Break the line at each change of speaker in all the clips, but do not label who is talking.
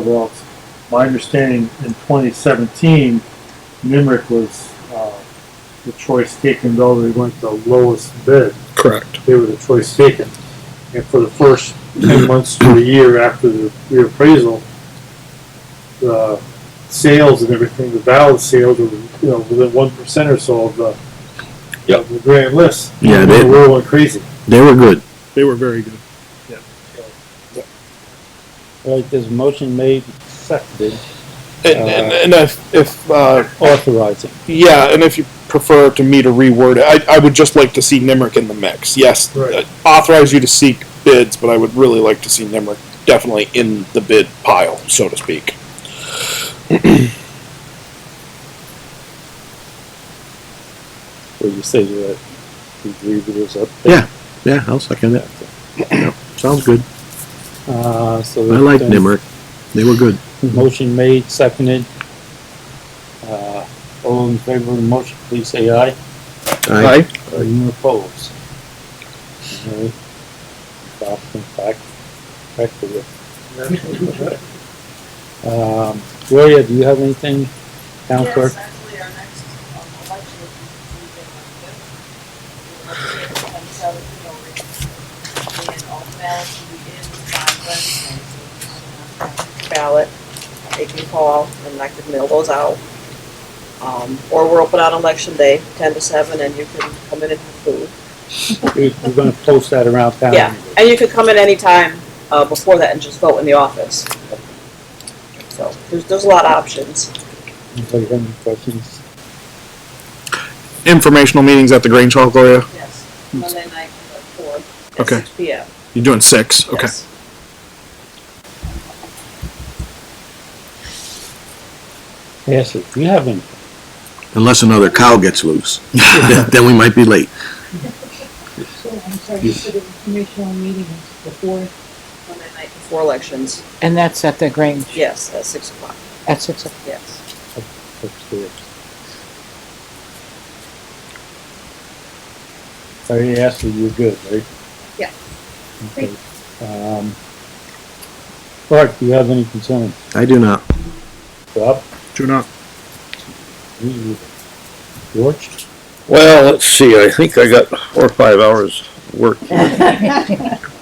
Well, my understanding in twenty seventeen, Nimrick was, uh, the choice taken, though they went the lowest bid,
Correct.
they were the choice taken. And for the first ten months to a year after the reappraisal, the sales and everything, the valid sales were, you know, within one percent or so of the
Yep.
of the grand list.
Yeah,
The
they-
world went crazy.
They were good.
They were very good.
All right, there's a motion made, seconded,
And, and, and if, if uh,
authorizing.
yeah, and if you prefer to me to reword it, I, I would just like to see Nimric in the mix. Yes,
Right.
uh, authorize you to seek bids, but I would really like to see Nimric definitely in the bid pile, so to speak.
So you say that you agree with us up
Yeah.
there?
Yeah, I'll second it. Sounds good.
Uh, so.
I like
then-
Nimerick. They were good.
Motion made, seconded. Uh, all in favor of the motion, please say aye.
I,
Anyone opposed? Alright. Adoption back, back to you. Um, Gloria, do you have anything, town clerk?
Yes, actually, our next um, election is in November. We'll have to have the vote. And all the ballots will be in by Wednesday. Ballot, they can call and I can mail those out. Um, or we're open on election day, ten to seven, and you can come in and have food.
We're we're gonna post that around town.
Yeah.
anyway.
And you can come in anytime, uh, before that and just vote in the office. So, there's, there's a lot of options.
Anybody have any questions?
Informational meetings at the Grange Hall, Gloria.
Yes, Monday night at four, at
Okay.
six P M.
You're doing six. Okay.
Yes.
Ashley, do you have any?
unless another cow gets loose, then we might be late.
So, I'm sorry, you said informational meetings before
Monday night before elections,
And that's at the Grange
yes, at six o'clock,
at six o'clock.
yes.
upstairs. So he asked you, you're good, right?
Yeah.
Okay. Um, Clark, do you have any concerns?
I do not.
Bob?
Do not.
you- you- George?
Well, let's see, I think I got four or five hours work.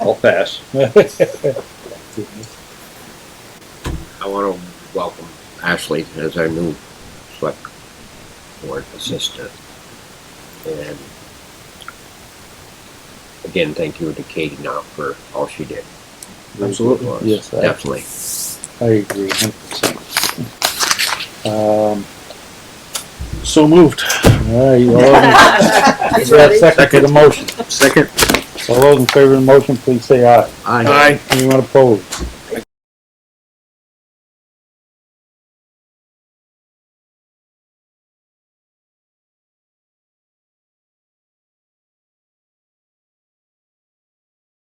I'll pass. I want to welcome Ashley as our new select board assistant. And again, thank you to Katie now for all she did. Absolutely.
Yes, I,
Definitely.
I agree, hundred percent. Um,
So moved.
all right, you all, in- Oh. is there a second to the motion?
Second.
All those in favor of the motion, please say aye.
I,
Aye.
Anyone opposed?